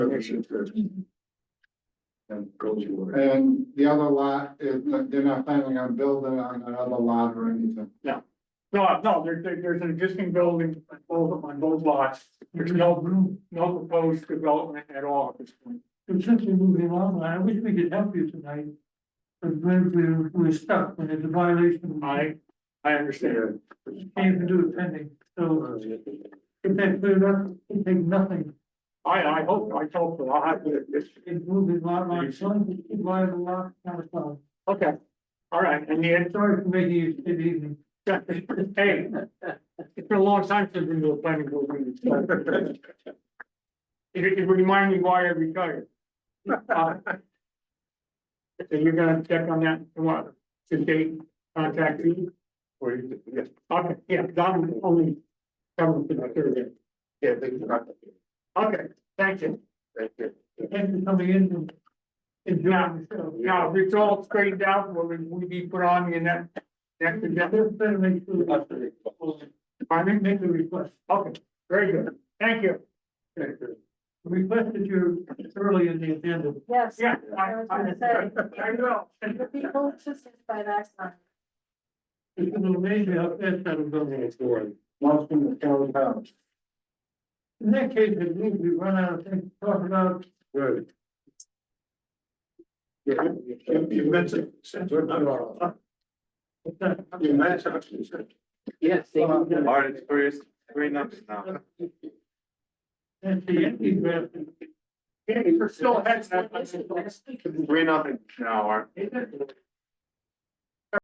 should be. And goes away. And the other lot, is they're not planning on building on another lot or anything. No, no, there, there- there's an existing building on both, on both lots, there's no, no proposed development at all at this point. And since we're moving along, I wish we could help you tonight. But we're, we're, we're stuck when it's a violation. I, I understand, Can't even do it pending, so if that cleared up, it take nothing. I, I hope, I hope, so. I'll have to, it's, It's moving lot by lot, it's lot by lot, kind of stuff. okay, all right, and the, Sorry for making you sit evening. hey, it's been a long time since we've been to a planning board meeting. so. It, it reminded me why I retired. Uh, So you're gonna check on that tomorrow, to date, contact you? Or you could- yeah, Okay, yeah, Don only covered the material. yeah, they can knock it. Okay, thank you. Thank you. Thanks for coming in and Now, enjoying yourself. now, if it's all straightened out, will we be put on in that next agenda? Just better make sure. that- I may make the request. Okay, very good. Thank you. Request that you're early in the agenda. Yes. Yeah, I I, was I, gonna say, I will. you'll be able to see by that time. It's an amazing how fast that'll go. Once in the town house. In that case, it means we run out of things to talk about. Good. Yeah, you- you mentioned, since we're not on. You mentioned. Yes, they do. Art is first, three numbers now. That's the empty draft. Andy, we're still ahead. Three nothing now, Art. Is it?